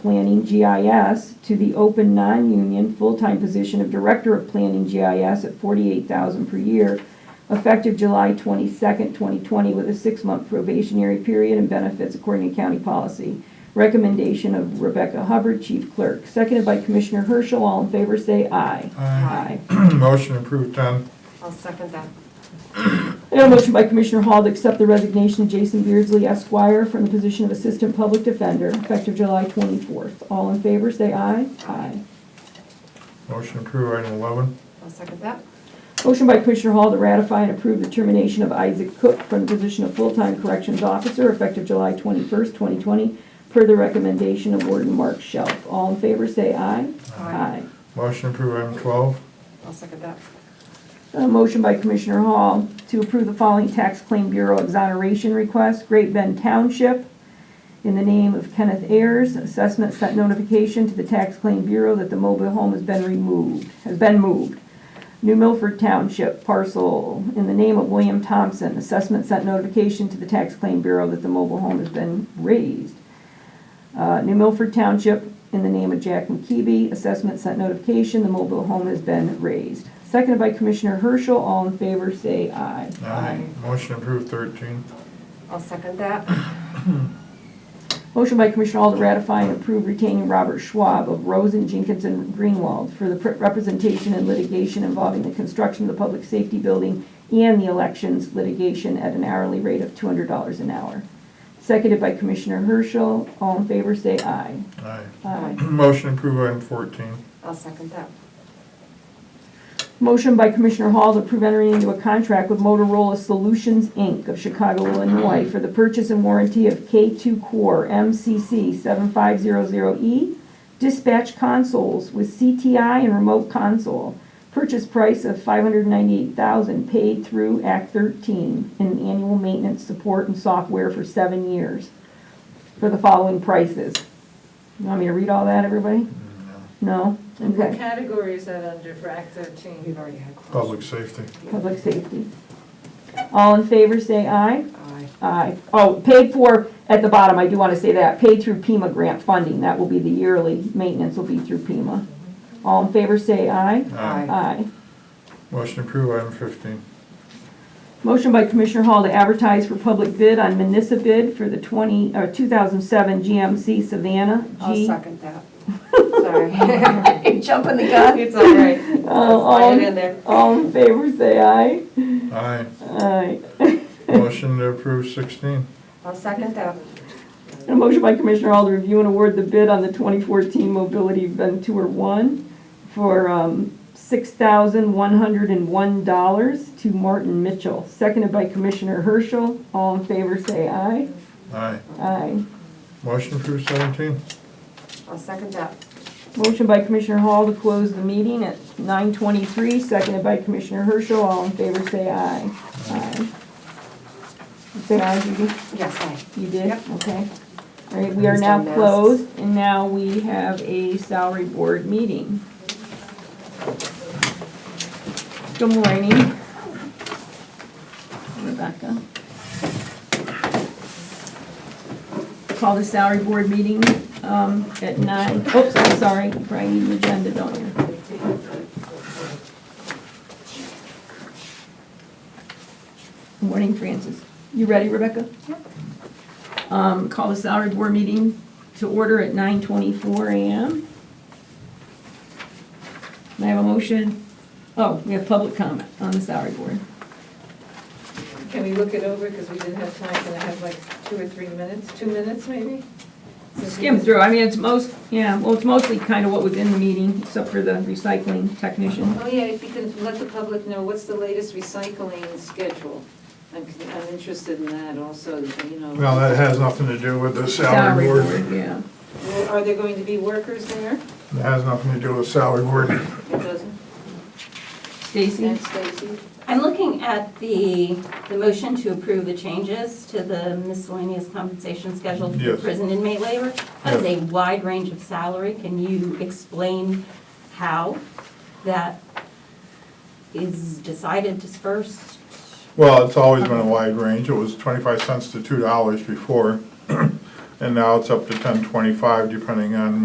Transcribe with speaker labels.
Speaker 1: Planning GIS to the open non-union full-time position of Director of Planning GIS at forty-eight thousand per year, effective July twenty-second, twenty twenty, with a six-month probationary period and benefits according to county policy. Recommendation of Rebecca Hubbard, Chief Clerk, seconded by Commissioner Herschel. All in favor, say aye.
Speaker 2: Aye. Motion approved, Tom.
Speaker 3: I'll second that.
Speaker 1: And a motion by Commissioner Hall to accept the resignation of Jason Beardsley Esquire from the position of Assistant Public Defender effective July 24th. All in favor, say aye. Aye.
Speaker 2: Motion approved, item 11.
Speaker 3: I'll second that.
Speaker 1: Motion by Commissioner Hall to ratify and approve the termination of Isaac Cook from the position of Full-Time Corrections Officer effective July 21st, 2020, per the recommendation of Warden Mark Shelf. All in favor, say aye.
Speaker 3: Aye.
Speaker 2: Motion approved, item 12.
Speaker 3: I'll second that.
Speaker 1: A motion by Commissioner Hall to approve the following tax claim bureau exoneration request. Great Bend Township, in the name of Kenneth Ayers, assessment sent notification to the tax claim bureau that the mobile home has been removed, has been moved. New Milford Township parcel, in the name of William Thompson, assessment sent notification to the tax claim bureau that the mobile home has been raised. Uh, New Milford Township, in the name of Jack McKeeby, assessment sent notification, the mobile home has been raised. Seconded by Commissioner Herschel, all in favor, say aye.
Speaker 2: Motion approved, 13.
Speaker 3: I'll second that.
Speaker 1: Motion by Commissioner Hall to ratify and approve retaining Robert Schwab of Rosen, Jenkins, and Greenwald for the pr- representation in litigation involving the construction of the public safety building and the elections litigation at an hourly rate of two hundred dollars an hour. Seconded by Commissioner Herschel. All in favor, say aye.
Speaker 2: Aye.
Speaker 1: Aye.
Speaker 2: Motion approved, item 14.
Speaker 3: I'll second that.
Speaker 1: Motion by Commissioner Hall to approve entering into a contract with Motorola Solutions, Inc. of Chicago, Illinois for the purchase and warranty of K2 Core MCC 7500E E dispatch consoles with CTI and remote console. Purchase price of $598,000 paid through Act 13 and annual maintenance support and software for seven years for the following prices. You want me to read all that, everybody? No?
Speaker 4: And what
Speaker 1: Okay.
Speaker 4: category is that under for Act 13?
Speaker 3: We've already had. closed.
Speaker 2: Public safety.
Speaker 1: Public safety. All in favor, say aye.
Speaker 3: Aye.
Speaker 1: Aye. Oh, paid for, at the bottom, I do want to say that, paid through PEMA grant funding. That will be the yearly, maintenance will be through PEMA. All in favor, say aye.
Speaker 3: Aye.
Speaker 1: Aye.
Speaker 2: Motion approved, item 15.
Speaker 1: Motion by Commissioner Hall to advertise for public bid on municipal bid for the uh, 20, or 2007 GMC Savannah
Speaker 3: I'll
Speaker 1: G.
Speaker 3: second that. Sorry.
Speaker 1: Jumping the Oh,
Speaker 3: It's all right. Slide it in there.
Speaker 1: All in favor, say aye.
Speaker 2: Aye.
Speaker 1: Aye.
Speaker 2: Motion to approve 16.
Speaker 3: I'll second that.
Speaker 1: A motion by Commissioner Hall to review and award the bid on the 2014 Mobility Ventura 1 for um, $6,101 to Martin Mitchell, seconded by Commissioner Herschel. All in favor, say aye.
Speaker 2: Aye.
Speaker 1: Aye.
Speaker 2: Motion approved, 17.
Speaker 3: I'll second that.
Speaker 1: Motion by Commissioner Hall to close the meeting at 9:23, seconded by Commissioner Herschel. All in favor, say aye. Aye. Say aye, Judy.
Speaker 3: Yes, aye.
Speaker 1: You did?
Speaker 3: Yep.
Speaker 1: Okay. All right, we are now
Speaker 3: Install masks.
Speaker 1: closed, and now we have a salary board meeting. Good morning. Rebecca. Call the salary board meeting um, at nine, oops, I'm sorry, Brian, you need an agenda, don't you? Morning, Francis. You ready, Rebecca? Um, Call the salary board meeting to order at 9:24 a.m. May I have a motion? Oh, we have public comment on the salary board.
Speaker 4: Can we look it over, because we didn't have time, can I have like two or three minutes, two minutes maybe? Since we-
Speaker 1: Skim through, I mean, it's most, yeah, well, it's mostly kind of what was in the meeting, except for the recycling technician.
Speaker 4: Oh, yeah, if you can let the public know, what's the latest recycling schedule? I'm, I'm interested in that also, you know.
Speaker 2: Well, that has nothing to do with the salary board.
Speaker 1: Yeah.
Speaker 4: Well, Are there going to be workers there?
Speaker 2: It has nothing to do with salary board.
Speaker 4: It doesn't,
Speaker 1: Stacy?
Speaker 4: and Stacy?
Speaker 5: I'm looking at the, the motion to approve the changes to the miscellaneous compensation schedule for
Speaker 2: Yes.
Speaker 5: prison inmate labor. That's a wide range of salary. Can you explain how that is decided, dispersed?
Speaker 2: Well, it's always been a wide range. It was 25 cents to $2 before. and now it's up to ten twenty-five, depending on